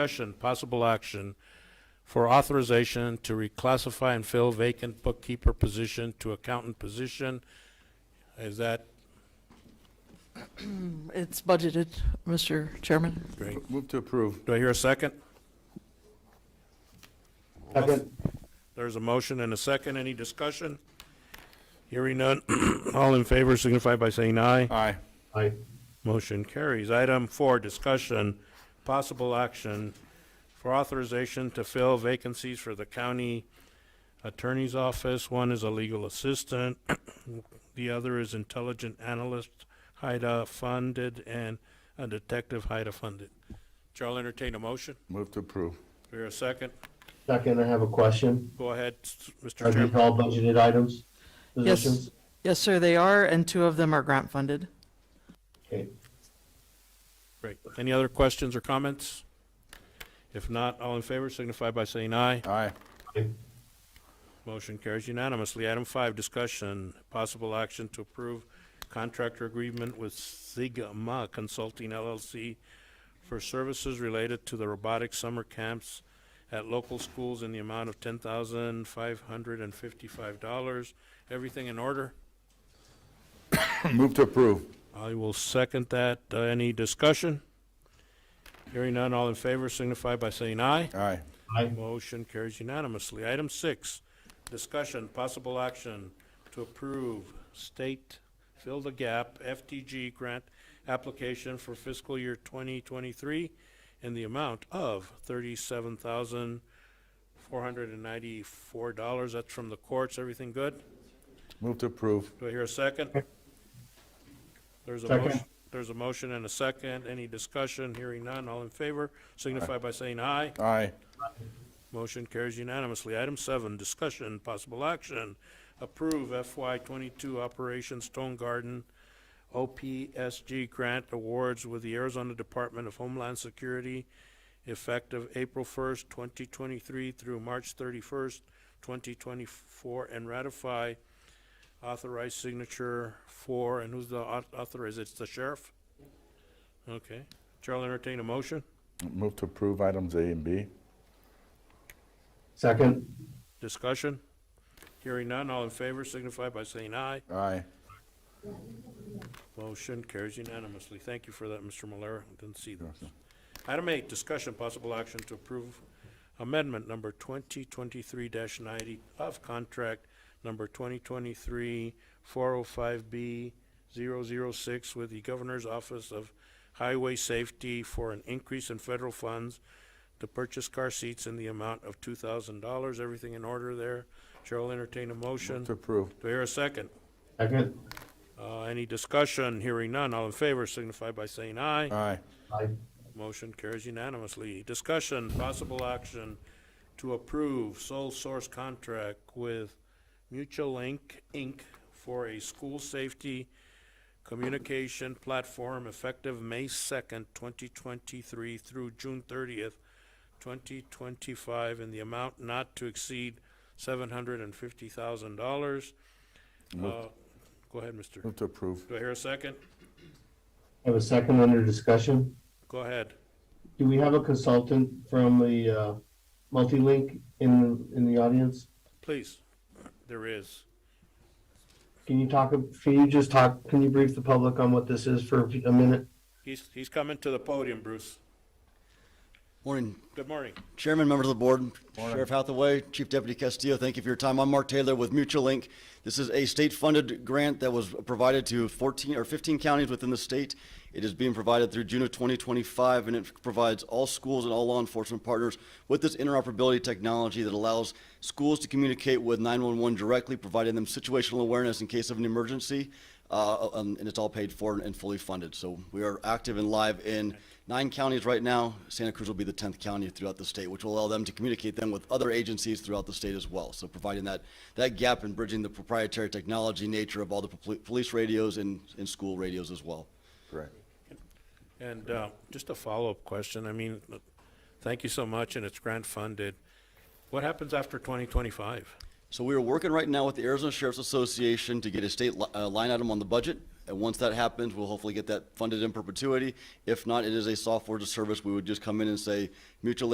Discussion, possible action for authorization to reclassify and fill vacant bookkeeper position to accountant position. Is that It's budgeted, Mr. Chairman. great? Move to approve. Do I hear a second? Second. There's a motion and a second. Any discussion? Hearing none. All in favor signify by saying aye. Aye. Aye. Motion carries. Item four, discussion, possible action for authorization to fill vacancies for the county attorney's office. One is a legal assistant, the other is intelligent analyst, HIDA funded, and a detective, HIDA funded. Chair will entertain a motion. Move to approve. Here a second. Second, I have a question. Go ahead, s- Mr. Are these Chairman. all budgeted items? Yes, Positions? yes, sir, they are, and two of them are grant funded. Okay. Great. Any other questions or comments? If not, all in favor signify by saying aye. Aye. Motion carries unanimously. Item five, discussion, possible action to approve contractor agreement with Sigma Consulting LLC for services related to the robotic summer camps at local schools in the amount of ten thousand five hundred and fifty-five dollars. Everything in order? Move to approve. I will second that. Uh, Any discussion? Hearing none, all in favor signify by saying aye. Aye. Aye. Motion carries unanimously. Item six, discussion, possible action to approve state fill the gap FTG grant application for fiscal year twenty twenty-three in the amount of thirty-seven thousand four hundred and ninety-four dollars. That's from the courts. Everything good? Move to approve. Do I hear a second? There's a Second. motion, there's a motion and a second. Any discussion? Hearing none. All in favor signify by saying aye. Aye. Motion carries unanimously. Item seven, discussion, possible action, approve FY twenty-two Operation Stone Garden OPSG grant awards with the Arizona Department of Homeland Security effective April first, twenty twenty-three through March thirty-first, twenty twenty-four, and ratify authorized signature for, and who's the au- author? Is it the sheriff? Okay. Chair will entertain a motion. Move to approve items A and B. Second? Discussion? Hearing none, all in favor signify by saying aye. Aye. Motion carries unanimously. Thank you for that, Mr. Malera. Didn't see those. Item eight, discussion, possible action to approve amendment number twenty twenty-three ninety of contract number twenty twenty-three four oh five B 6 with the Governor's Office of Highway Safety for an increase in federal funds to purchase car seats in the amount of two thousand dollars. Everything in order there. Chair will entertain a motion. Move to approve. Do I hear a second? Second? Uh, any discussion? Hearing none. All in favor signify by saying aye. Aye. Aye. Motion carries unanimously. Discussion, possible action to approve sole source contract with Mutual Link, Inc. for a school safety communication platform effective May second, twenty twenty-three through June thirtieth, twenty twenty-five in the amount not to exceed seven hundred and fifty thousand dollars. Uh, Go ahead, mister. Move to approve. Do I hear a second? I have a second under discussion. Go ahead. Do we have a consultant from the, uh, Multilink in, in the audience? Please, there is. Can you talk, can you just talk, can you brief the public on what this is for a minute? He's, he's coming to the podium, Bruce. Morning, Good morning. Chairman, members of the board, Sheriff Hathaway, Chief Deputy Castillo, thank you for your time. I'm Mark Taylor with Mutual Link. This is a state-funded grant that was provided to 14 or 15 counties within the state. It is being provided through June of 2025, and it provides all schools and all law enforcement partners with this interoperability technology that allows schools to communicate with 911 directly, providing them situational awareness in case of an emergency, uh, um, and it's all paid for and fully funded. So we are active and live in nine counties right now. Santa Cruz will be the 10th county throughout the state, which will allow them to communicate them with other agencies throughout the state as well. So providing that, that gap and bridging the proprietary technology nature of all the pol- police radios and, and school radios as well. Correct. And uh, just a follow-up question. I mean, look, thank you so much, and it's grant-funded. What happens after 2025? So we are working right now with the Arizona Sheriff's Association to get a state li- uh, line item on the budget. And once that happens, we'll hopefully get that funded in perpetuity. If not, it is a software as a service. We would just come in and say, Mutual